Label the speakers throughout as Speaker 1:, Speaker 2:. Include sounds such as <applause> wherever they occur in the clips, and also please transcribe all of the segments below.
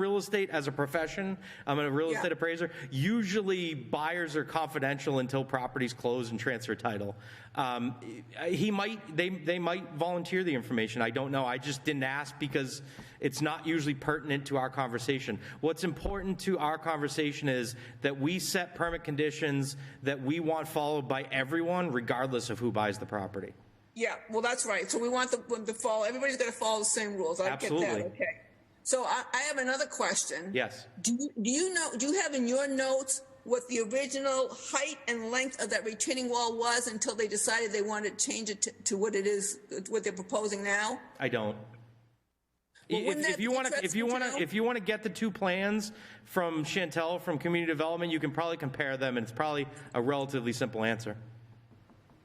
Speaker 1: estate as a profession. I'm a real
Speaker 2: Yeah.
Speaker 1: estate appraiser. Usually, buyers are confidential until properties close and transfer title. Um, he might, they, they might volunteer the information. I don't know. I just didn't ask because it's not usually pertinent to our conversation. What's important to our conversation is that we set permit conditions that we want followed by everyone, regardless of who buys the property.
Speaker 2: Yeah, well, that's right. So we want the- them to follow, everybody's going to follow the same rules. I get that.
Speaker 1: Absolutely.
Speaker 2: Okay. So I, I have another question.
Speaker 1: Yes.
Speaker 2: Do you, do you know, do you have in your notes what the original height and length of that retaining wall was until they decided they wanted to change it to, to what it is, what they're proposing now?
Speaker 1: I don't.
Speaker 2: Well,
Speaker 1: If,
Speaker 2: wouldn't
Speaker 1: if
Speaker 2: that
Speaker 1: you
Speaker 2: be
Speaker 1: want to, if you want
Speaker 2: interesting to
Speaker 1: to,
Speaker 2: know?
Speaker 1: if you want to get the two plans from Chantel from Community Development, you can probably compare them, and it's probably a relatively simple answer.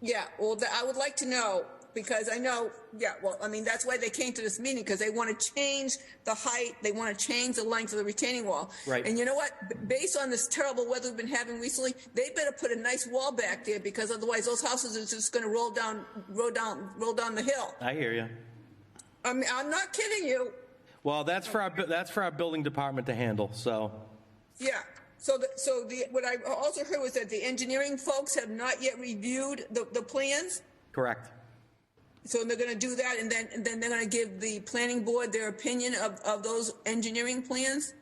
Speaker 2: Yeah, well, th- I would like to know because I know, yeah, well, I mean, that's why they came to this meeting because they want to change the height, they want to change the length of the retaining wall.
Speaker 1: Right.
Speaker 2: And you know what? B- Based on this terrible weather we've been having recently, they better put a nice wall back there because otherwise those houses are just going to roll down, roll down, roll down the hill.
Speaker 1: I hear you.
Speaker 2: I mean, I'm not kidding you.
Speaker 1: Well, that's for our bu- that's for our building department to handle. So
Speaker 2: Yeah. So, the, so the what I also heard was that the engineering folks have not yet reviewed the, the plans.
Speaker 1: correct.
Speaker 2: So they're going to do that, and then, and then they're going to give the planning board their opinion of, of those engineering plans?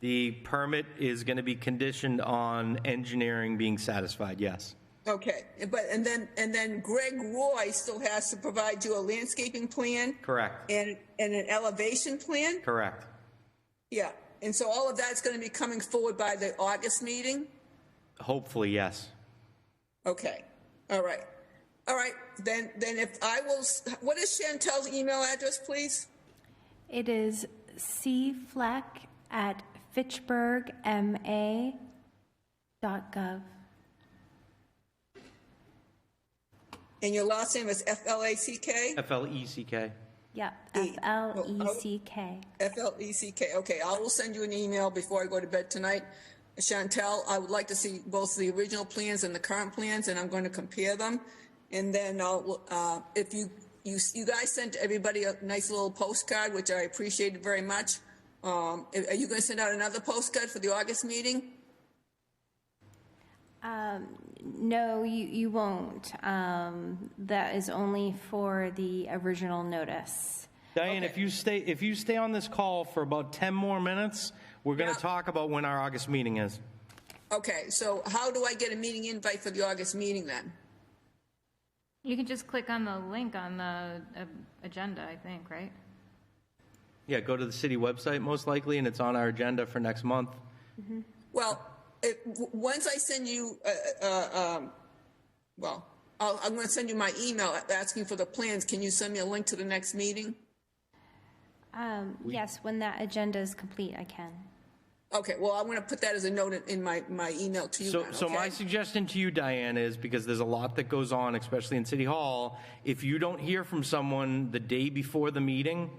Speaker 1: The permit is going to be conditioned on engineering being satisfied. Yes.
Speaker 2: Okay, but, and then, and then Greg Roy still has to provide you a landscaping plan?
Speaker 1: Correct.
Speaker 2: And, and an elevation plan?
Speaker 1: Correct.
Speaker 2: Yeah, and so all of that's going to be coming forward by the August meeting?
Speaker 1: Hopefully, yes.
Speaker 2: Okay, all right. All right, then, then if I will, s- what is Chantel's email address, please?
Speaker 3: It is C Fleck at fitchburgma.gov.
Speaker 2: And your last name is F-L-A-C-K?
Speaker 1: F L E C K.
Speaker 3: Yep, F
Speaker 2: Hey,
Speaker 3: L E
Speaker 2: well, I-
Speaker 3: C K.
Speaker 2: F L E C K. Okay, I will send you an email before I go to bed tonight. Chantel, I would like to see both the original plans and the current plans, and I'm going to compare them. And then I'll, uh, if you, you, you guys sent everybody a nice little postcard, which I appreciated very much. Um, are you going to send out another postcard for the August meeting?
Speaker 3: No, you, you won't. Um, that is only for the original notice.
Speaker 1: Diane,
Speaker 2: Okay.
Speaker 1: if you stay if you stay on this call for about ten more minutes, we're going to
Speaker 2: Yeah.
Speaker 1: talk about when our August meeting is.
Speaker 2: Okay, so how do I get a meeting invite for the August meeting then?
Speaker 4: You can just click on the link on the uh, agenda, I think, right?
Speaker 1: Yeah, go to the city website most likely, and it's on our agenda for next month.
Speaker 2: Well, it, w- once I send you, uh, uh, um, well, I'll, I'm going to send you my email asking for the plans. Can you send me a link to the next meeting?
Speaker 3: Um, yes, when that agenda is complete, I can.
Speaker 2: Okay, well, I'm going to put that as a note in- in my, my email to you.
Speaker 1: So,
Speaker 2: then,
Speaker 1: so my
Speaker 2: okay?
Speaker 1: suggestion to you, Diane, is because there's a lot that goes on, especially in City Hall, if you don't hear from someone the day before the meeting,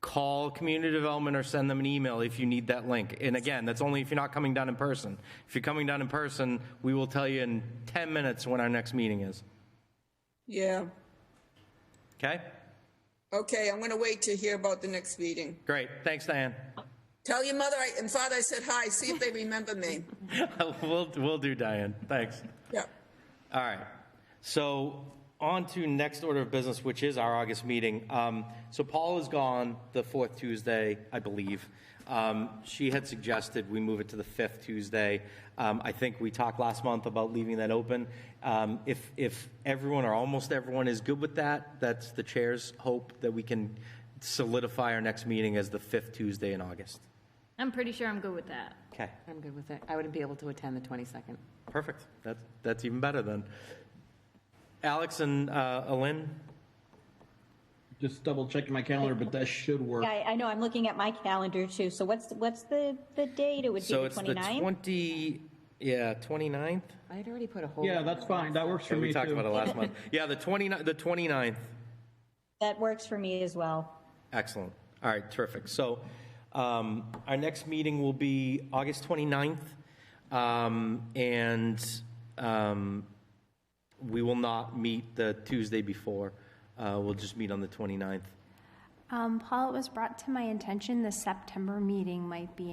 Speaker 1: call community development or send them an email if you need that link. And again, that's only if you're not coming down in person. If you're coming down in person, we will tell you in 10 minutes when our next meeting is.
Speaker 2: Yeah.
Speaker 1: Okay?
Speaker 2: Okay, I'm going to wait to hear about the next meeting.
Speaker 1: Great. Thanks, Diane.
Speaker 2: Tell your mother I- and father I said hi. See if they remember me.
Speaker 1: <laughs> we'll, we'll do, Diane. Thanks.
Speaker 2: Yeah.
Speaker 1: All right. So on to next order of business, which is our August meeting. Um, so Paul is gone the fourth Tuesday, I believe. Um, she had suggested we move it to the fifth Tuesday. Um, I think we talked last month about leaving that open. Um, if if everyone or almost everyone is good with that, that's the chair's hope that we can solidify our next meeting as the fifth Tuesday in August.
Speaker 4: I'm pretty sure I'm good with that.
Speaker 1: Okay.
Speaker 5: I'm good with it. I wouldn't be able to attend the 22nd.
Speaker 1: Perfect. That's, that's even better then. Alex and uh, Alin?
Speaker 6: Just double checking my calendar, but that should work.
Speaker 7: Yeah, I I know, I'm looking at my calendar too. So what's, what's the, the date? It would be
Speaker 1: So
Speaker 7: the
Speaker 1: it's the
Speaker 7: 29th?
Speaker 1: 20, yeah, 29th?
Speaker 5: I had already put a whole.
Speaker 6: Yeah, that's fine. That works for
Speaker 1: Yeah,
Speaker 6: me
Speaker 1: we talked
Speaker 6: too.
Speaker 1: about it last month. Yeah, the 29, the 29th.
Speaker 7: That works for me as well.
Speaker 1: Excellent. All right, terrific. So um, our next meeting will be August 29th. um, And um, we will not meet the Tuesday before. Uh, We'll just meet on the 29th.
Speaker 3: Um, Paul, it was brought to my attention the September meeting might be